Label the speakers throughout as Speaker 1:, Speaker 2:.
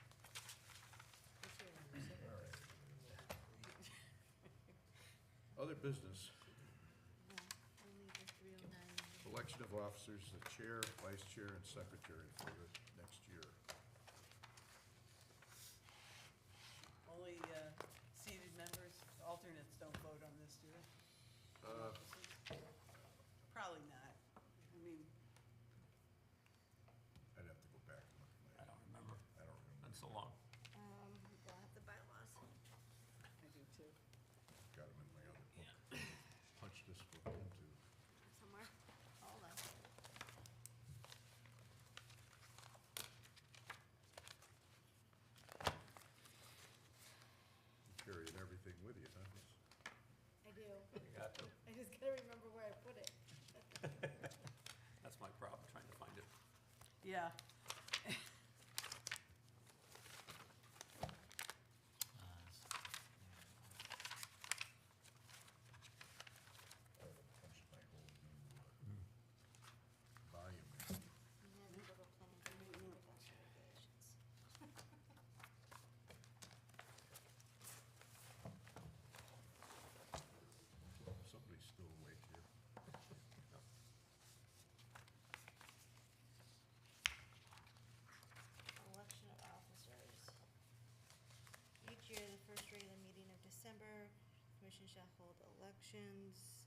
Speaker 1: Other business,
Speaker 2: We'll leave the 309.
Speaker 1: election of officers, the chair, vice chair, and secretary for the next year.
Speaker 3: Only uh, seated members, alternates don't vote on this, do they?
Speaker 1: Uh.
Speaker 3: Probably not. I mean,
Speaker 1: I'd have to go back and look
Speaker 4: I
Speaker 1: at my,
Speaker 4: don't remember.
Speaker 1: I don't
Speaker 4: Been
Speaker 1: remember,
Speaker 4: so long.
Speaker 2: Um, we'll have the bylaws.
Speaker 3: I do too.
Speaker 1: got them in my other book. Punch this book into,
Speaker 2: somewhere. Hold on.
Speaker 1: carrying everything with you, huh?
Speaker 2: I do.
Speaker 4: You got to.
Speaker 2: I just gotta remember where I put it.
Speaker 4: That's my problem, trying to find it.
Speaker 1: Uh,
Speaker 3: Yeah.
Speaker 1: I punched my whole new uh, volume in.
Speaker 2: And then we go to planning committee with those regulations.
Speaker 1: Somebody's still awake here.
Speaker 2: Election of officers. Each year, the first regular meeting of December, commission shall hold elections.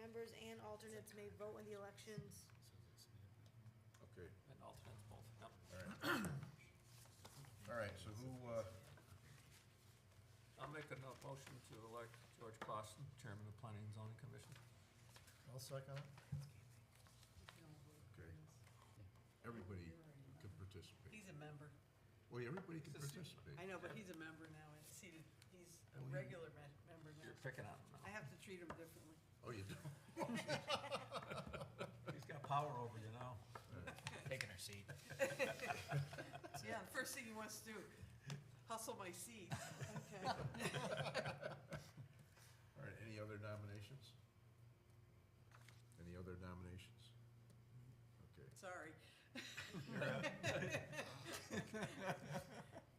Speaker 2: Members and alternates may vote in the elections.
Speaker 1: Okay,
Speaker 4: And alternates both, yep.
Speaker 1: all right. All right, so who, uh,
Speaker 4: I'll make a no- motion to elect George Clausen, Chairman of Planning and Zoning Commission.
Speaker 5: I'll second it.
Speaker 1: okay, everybody can participate.
Speaker 3: He's a member.
Speaker 1: Well, everybody can
Speaker 4: It's a-
Speaker 1: participate.
Speaker 3: I know, but he's a member now. He's seated, he's a
Speaker 1: Oh, yeah.
Speaker 3: regular me- member
Speaker 4: You're
Speaker 3: now.
Speaker 4: picking on him
Speaker 3: I have to treat him differently.
Speaker 1: Oh, you do?
Speaker 4: now. He's got power over you now.
Speaker 6: Taking her seat.
Speaker 3: Yeah, the first thing he wants to do, hustle my seat.
Speaker 1: All right, any other nominations? Any other nominations? Okay,
Speaker 3: Sorry.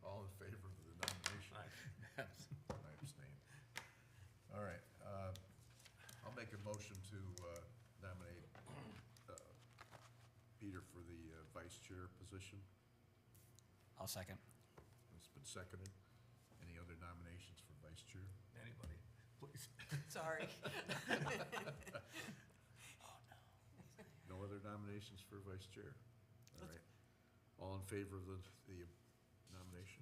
Speaker 1: all in favor of the nomination?
Speaker 4: Aye.
Speaker 1: I abstain. All right, uh, I'll make a motion to uh, nominate uh, Peter for the uh, vice chair position.
Speaker 6: I'll second.
Speaker 1: It's been seconded. Any other nominations for vice chair?
Speaker 4: Anybody, please.
Speaker 3: Sorry.
Speaker 1: No other nominations for vice chair? All right. All in favor of the, the nomination?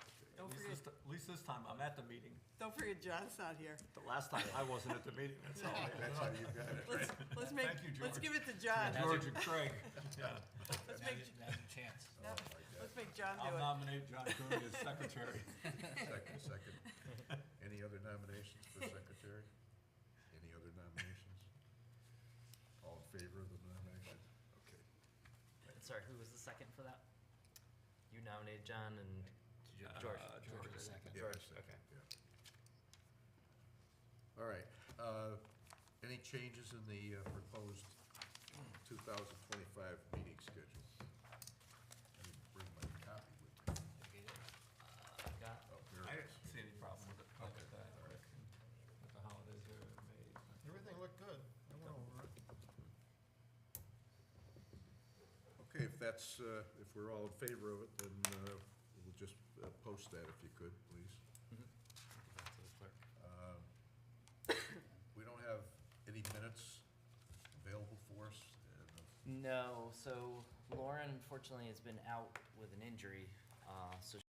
Speaker 1: Okay.
Speaker 4: At
Speaker 3: Don't
Speaker 4: least this
Speaker 3: forget,
Speaker 4: ti- at least this time, I'm at the meeting.
Speaker 3: don't forget John's not here.
Speaker 4: The last time, I wasn't at the meeting, that's all. I
Speaker 1: That's how you got it, right?
Speaker 3: Let's, let's make,
Speaker 4: Thank you,
Speaker 3: let's
Speaker 4: George.
Speaker 3: give it to John.
Speaker 4: George and Craig, yeah.
Speaker 6: Now's
Speaker 3: Let's make,
Speaker 6: your- now's your chance.
Speaker 1: Oh, my God.
Speaker 3: let's make John do it.
Speaker 4: I'll nominate John Cooney as secretary.
Speaker 1: Second, second. Any other nominations for secretary? Any other nominations? All in favor of the nomination? Okay.
Speaker 7: Sorry, who was the second for that? You nominated John and
Speaker 4: Uh,
Speaker 7: George.
Speaker 4: George was second.
Speaker 1: Uh, Yeah, I second, yeah. All right, uh, any changes in the uh, proposed two thousand twenty-five meeting schedule? I didn't bring my copy with me.
Speaker 7: Uh, I've got-
Speaker 1: Oh, here
Speaker 4: I
Speaker 1: it
Speaker 4: didn't
Speaker 1: is.
Speaker 4: see any problem with it, like with that, Rick, and with the holidays are made.
Speaker 5: Everything looked good. I went over it.
Speaker 1: Okay, if that's, uh, if we're all in favor of it, then uh, we'll just uh, post that if you could, please.
Speaker 7: Give that to the clerk.
Speaker 1: Uh, We don't have any minutes available for us. uh,
Speaker 7: No, so Lauren unfortunately has been out with an injury, uh, so